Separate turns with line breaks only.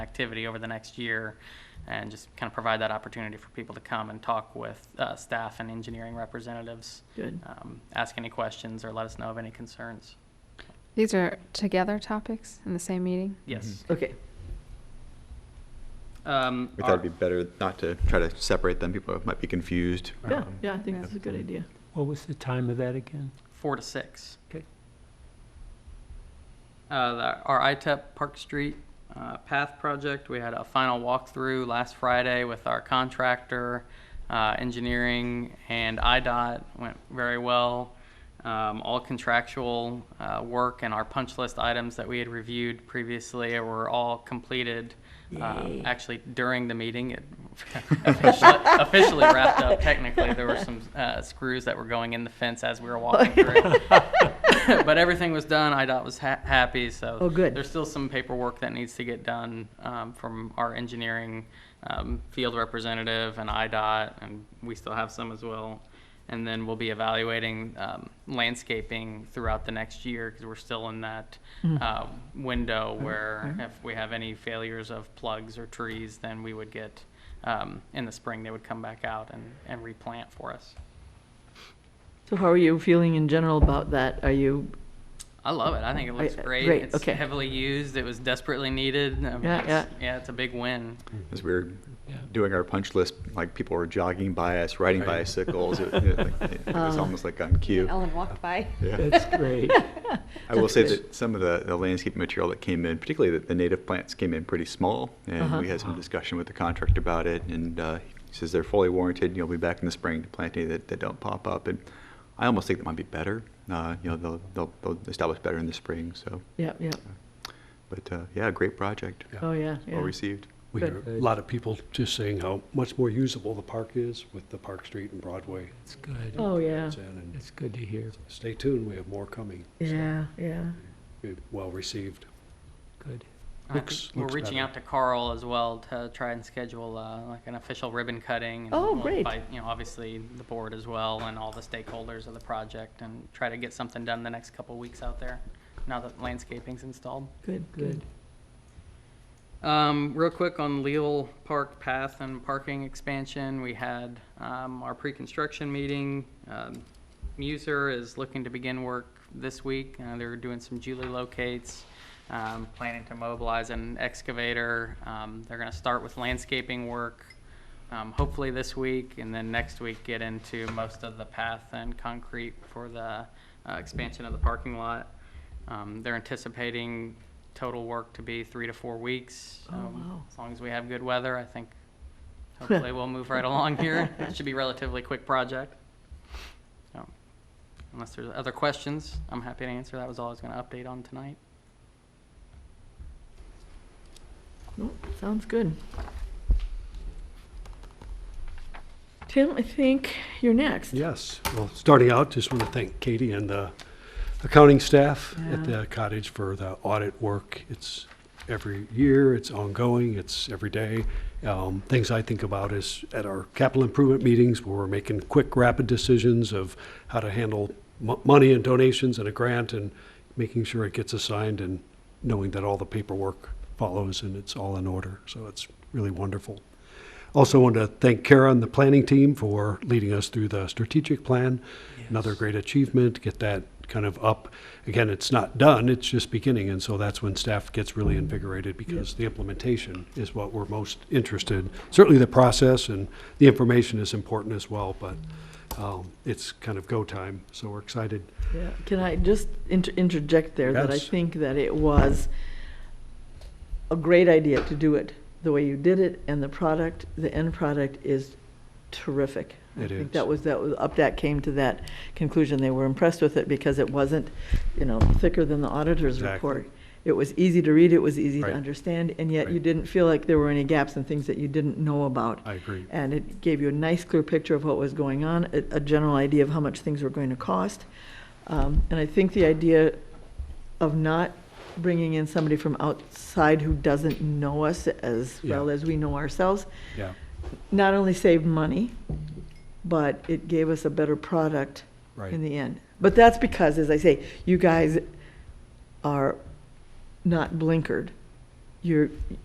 activity over the next year and just kind of provide that opportunity for people to come and talk with uh, staff and engineering representatives,
Good.
um, ask any questions or let us know of any concerns.
These are together topics in the same meeting?
Yes.
Okay.
Um,
We
our-
thought it'd be better not to try to separate them. People might be confused.
Yeah,
Um,
yeah, I think
Yeah.
that's a good idea.
What was the time of that again?
Four to six.
Okay.
Uh, the- Our ITEP Park Street uh, Path Project, we had a final walkthrough last Friday with our contractor, uh, engineering, and IDOT. Went very well. Um, All contractual uh, work and our punch list items that we had reviewed previously were all completed. um, Actually, during the meeting, it officially officially wrapped up technically. There were some uh, screws that were going in the fence as we were walking through it but everything was done. IDOT was ha- happy, so.
Oh, good.
There's still some paperwork that needs to get done um, from our engineering um, field representative and IDOT, and we still have some as well. And then we'll be evaluating um, landscaping throughout the next year, because we're still in that
Mm-hmm.
uh, window where if we have any failures of plugs or trees, then we would get, um, in the spring, they would come back out and, and replant for us.
So how are you feeling in general about that? Are you,
I love it. I think it looks
I- I-
great.
great,
It's
okay.
heavily used. It was desperately needed. I mean,
Yeah,
it's- yeah, it's a big win.
Mm.
As we were
Yeah.
doing our punch list, like people were jogging by us, riding bicycles. It, it- like, it was almost like on cue.
Ellen walked by.
Yeah.
That's great.
I will say
good.
that some of the, the landscape material that came in, particularly the, the native plants, came in pretty small. And
Uh-huh.
we had some discussion with the contractor about it. And uh, he says they're fully warranted. You'll be back in the spring to plant any that, that don't pop up. And I almost think that might be better. Uh, you know, they'll, they'll, they'll establish better in the spring. So,
yeah, yeah,
but uh, yeah, great project.
Yeah.
oh, yeah, yeah.
Well received.
We hear a
Good.
lot of people just saying how much more usable the park is with the Park Street and Broadway.
It's good.
Oh, yeah,
It's in, and
It's good to hear.
Stay tuned, we have more coming.
yeah, yeah.
Well-received.
Good.
And I
Looks-
think Uh, we're
looks
reaching
better.
out to Carl as well to try and schedule uh, like an official ribbon cutting. And
Oh,
we'll
great.
invite, you know, obviously the board as well and all the stakeholders of the project, and try to get something done the next couple weeks out there. Now that landscaping's installed.
Good, good.
Good.
Um, real quick on Leal Park path and parking expansion, we had, um, our pre-construction meeting. Um, Muser is looking to begin work this week. Uh, they're doing some Julie locates, um, planning to mobilize an excavator. Um, they're gonna start with landscaping work, um, hopefully this week, and then next week get into most of the path and concrete for the, uh, expansion of the parking lot. Um, they're anticipating total work to be three to four weeks.
Oh,
Um,
wow.
As long as we have good weather, I think hopefully we'll move right along here. It should be a relatively quick project. So, Unless there's other questions, I'm happy to answer. That was all I was going to update on tonight.
Nope, Sounds good. Tim, I think you're next.
Yes, well, starting out, just want to thank Katie and the accounting staff at
Yeah.
the cottage for the audit work. It's every year, it's ongoing, it's every day. Um, Things I think about is at our capital improvement meetings, where we're making quick, rapid decisions of how to handle mo- money and donations and a grant and making sure it gets assigned and knowing that all the paperwork follows and it's all in order. So it's really wonderful. Also want to thank Kara and the planning team for leading us through the strategic plan. Another great achievement, get that kind of up. Again, it's not done, it's just beginning, and so that's when staff gets really invigorated because the implementation is what we're most interested. Certainly the process and the information is important as well, but um, it's kind of go time, so we're excited.
Yeah, can I just inter- interject there that I
Yes.
think that it was a great idea to do it the way you did it, and the product, the end product is terrific. I
It
think
is.
that was that was UpDAC came to that conclusion. They were impressed with it because it wasn't, you know, thicker than the auditor's
Exactly.
report. It was easy to read. It was easy
Right.
to understand, and yet you
Right.
didn't feel like there were any gaps and things that you didn't know about.
I agree.
And it gave you a nice, clear picture of what was going on, a, a general idea of how much things were going to cost. Um, and I think the idea of not bringing in somebody from outside who doesn't know us as
Yeah.
well as we know ourselves,
Yeah,
not only saved money, but it gave us a better product
right.
in the end. But that's because, as I say, you guys are not blinkered. You're,